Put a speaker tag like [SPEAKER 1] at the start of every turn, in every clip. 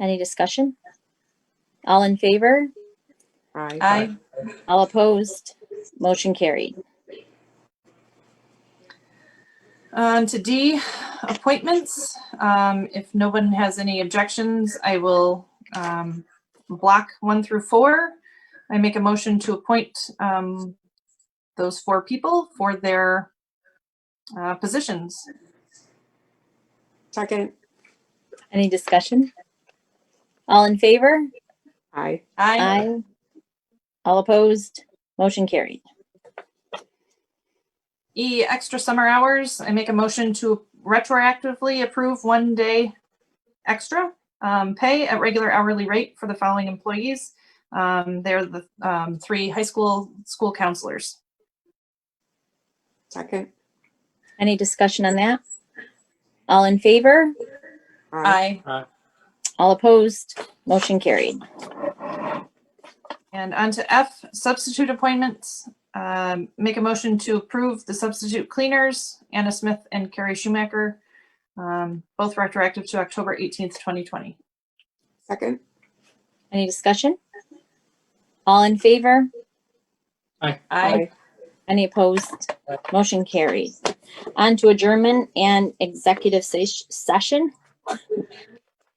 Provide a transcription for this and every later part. [SPEAKER 1] Any discussion? All in favor?
[SPEAKER 2] Aye.
[SPEAKER 3] Aye.
[SPEAKER 1] All opposed? Motion carried.
[SPEAKER 3] On um, to D, appointments. Um, If no one has any objections, I will um, block one through four. I make a motion to appoint um, those four people for their uh, positions.
[SPEAKER 2] Second.
[SPEAKER 1] Any discussion? All in favor?
[SPEAKER 2] Aye.
[SPEAKER 3] Aye.
[SPEAKER 1] All opposed? Motion carried.
[SPEAKER 3] E, extra summer hours. I make a motion to retroactively approve one day extra um, pay at regular hourly rate for the following employees. Um, They're the um, three high school, school counselors.
[SPEAKER 2] Second.
[SPEAKER 1] Any discussion on that? All in favor?
[SPEAKER 3] Aye.
[SPEAKER 1] All opposed? Motion carried.
[SPEAKER 3] And on to F, substitute appointments. Um, Make a motion to approve the substitute cleaners, Anna Smith and Carrie Schumacher, um, both retroactive to October 18th, 2020.
[SPEAKER 2] Second.
[SPEAKER 1] Any discussion? All in favor?
[SPEAKER 3] Aye.
[SPEAKER 1] Any opposed? Motion carried. On to adjournment and executive ses- session.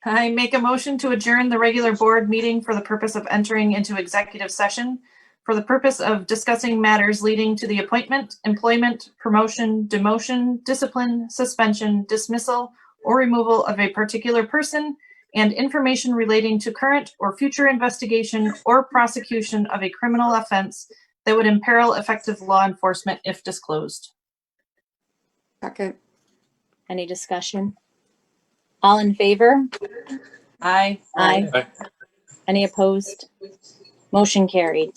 [SPEAKER 3] I make a motion to adjourn the regular board meeting for the purpose of entering into executive session for the purpose of discussing matters leading to the appointment, employment, promotion, demotion, discipline, suspension, dismissal, or removal of a particular person and information relating to current or future investigation or prosecution of a criminal offense that would imperil effective law enforcement if disclosed.
[SPEAKER 2] Second.
[SPEAKER 1] Any discussion? All in favor?
[SPEAKER 3] Aye.
[SPEAKER 1] Aye. Any opposed? Motion carried.